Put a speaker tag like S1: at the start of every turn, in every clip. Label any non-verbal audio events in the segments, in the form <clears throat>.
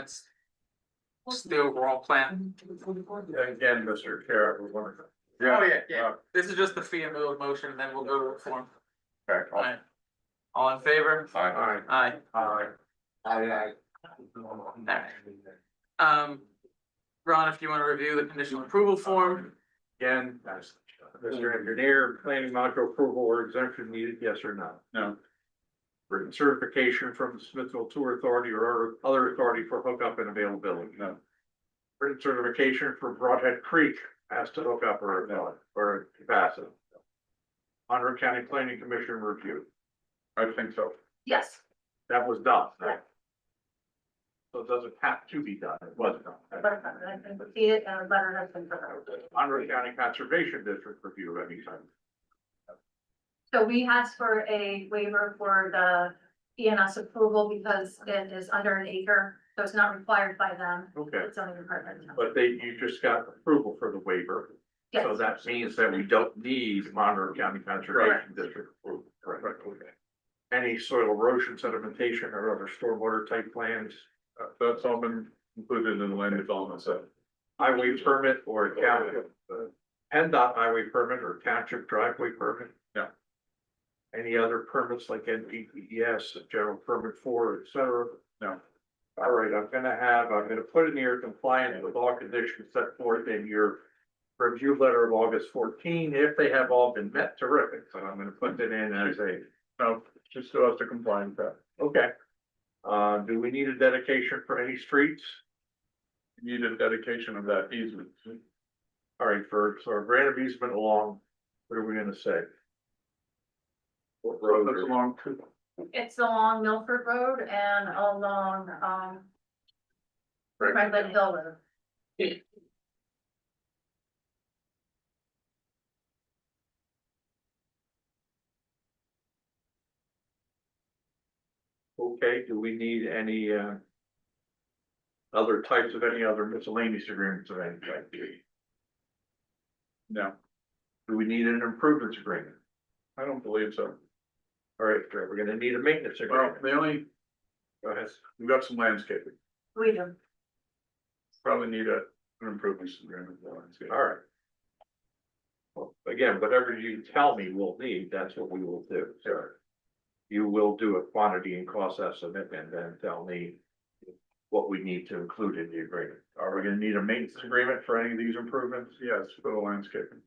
S1: That's still raw plant.
S2: Again, Mr. Chair, we want to.
S1: Oh, yeah, yeah. This is just the fee and bill of motion, and then we'll go to the form. Alright. All in favor?
S2: Aye.
S1: Aye.
S2: Aye. Aye.
S1: Um, Ron, if you want to review the conditional approval form,
S2: Again, Mr. Engineer, planning module approval or exemption needed, yes or no? No. Written certification from the Smithville Tour Authority or other authority for hookup and availability? No. Written certification for Broadhead Creek as to hookup or avail- or capacity? Under County Planning Commission review? I think so.
S3: Yes,
S2: That was done. right? So it doesn't have to be done, it was done.
S3: but I can see it and a letter has been prepared.
S2: Monroe County Conservation District review of any time.
S3: So we asked for a waiver for the ENS approval because it is under an acre, so it's not required by them.
S2: Okay,
S3: It's only department.
S2: but they, you just got approval for the waiver, so
S3: Yes,
S2: that means that we don't need Monroe County Conservation District approval. Right, okay. Any soil erosion sedimentation or other stormwater type plans,
S4: Uh, That's all been included in the land development set.
S2: highway permit or county. PennDOT highway permit or township driveway permit?
S4: Yeah.
S2: Any other permits like NPDES, general permit four, et cetera?
S4: No.
S2: All right, I'm gonna have, I'm gonna put in here compliant with all conditions set forth in your review letter of August fourteen, if they have all been met, terrific, so I'm gonna put that in as a,
S4: No, she still has to comply with that.
S2: okay. Uh, do we need a dedication for any streets?
S4: You Need a dedication of that easement.
S2: All right, for, so a grant of easement along, what are we gonna say? What road
S4: That's
S2: or-
S4: along,
S3: it's along Milford Road and along, um, Franklin Hill Road.
S2: Okay, do we need any, uh, other types of any other miscellaneous agreements of any type?
S4: no,
S2: Do we need an improvements agreement?
S4: I don't believe so.
S2: All right, great, we're gonna need a maintenance
S4: Well,
S2: agreement.
S4: the only,
S2: Go ahead.
S4: we've got some landscaping,
S3: We do.
S4: probably need a, an improvements agreement. for landscaping.
S2: All right. Well, Again, whatever you tell me we'll need, that's what we will do. Sure. You will do a quantity and cost estimate and then tell me what we need to include in the agreement. Are we gonna need a maintenance agreement for any of these improvements?
S4: Yes, for the landscaping.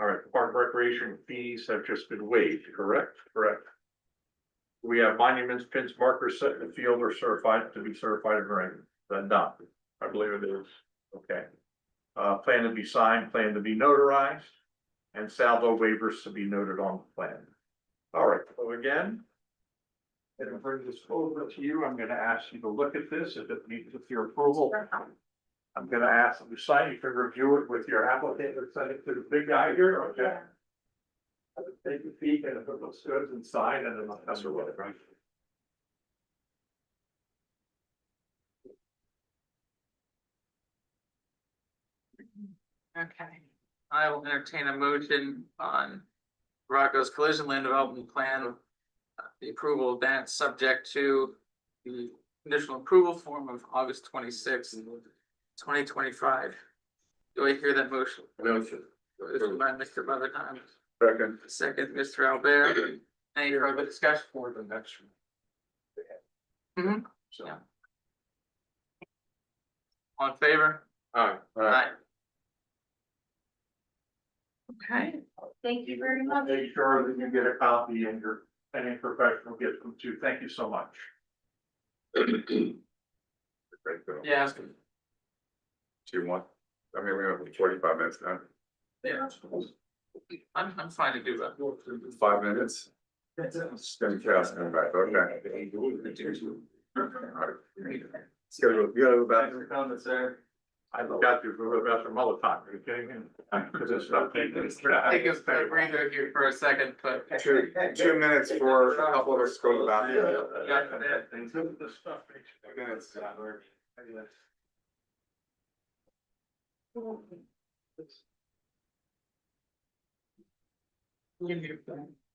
S2: All right, park recreation fees have just been waived, correct? Correct. We have monuments, pins, markers set in the field or certified to be certified and ready, then done. I believe it is. Okay. Uh, plan to be signed, plan to be notarized, and salvo waivers to be noted on the plan. All right, so again. It'll bring this over to you. I'm gonna ask you to look at this if it needs your approval. I'm gonna ask them to sign, you can review it with your applicant, and send it to the big guy here, okay? Take a peek and if it looks good, then sign and then. That's what, right?
S1: okay, I will entertain a motion on Rocco's collision land development plan. uh, The approval of that, subject to the conditional approval form of August twenty-sixth, twenty twenty-five. Do I hear that motion?
S4: Motion.
S1: Motion by Mr. Brotherton,
S4: Second.
S1: second, Mr. Albert, any further discussion?
S2: For the next one.
S1: Mhm.
S2: So.
S1: Yeah. All in favor?
S2: Alright.
S1: Aye. Okay,
S3: Thank you very much.
S2: Make sure that you get a copy and your, any professional gets them too, thank you so much. <clears throat>
S4: Great, so,
S1: yeah, I was gonna-
S4: do you want, I mean, we have forty-five minutes now,
S1: yeah, I'm, I'm fine to do that.
S4: five minutes. Just gonna cast them back, okay. Alright. Let's go to- you gotta go back.
S1: comments, sir.
S2: I got you for the best of all the time, are you kidding me? Because it's not.
S1: Take us a breather here for a second, but.
S4: Two, two minutes for a couple of us to go back. Minutes.
S1: Give you-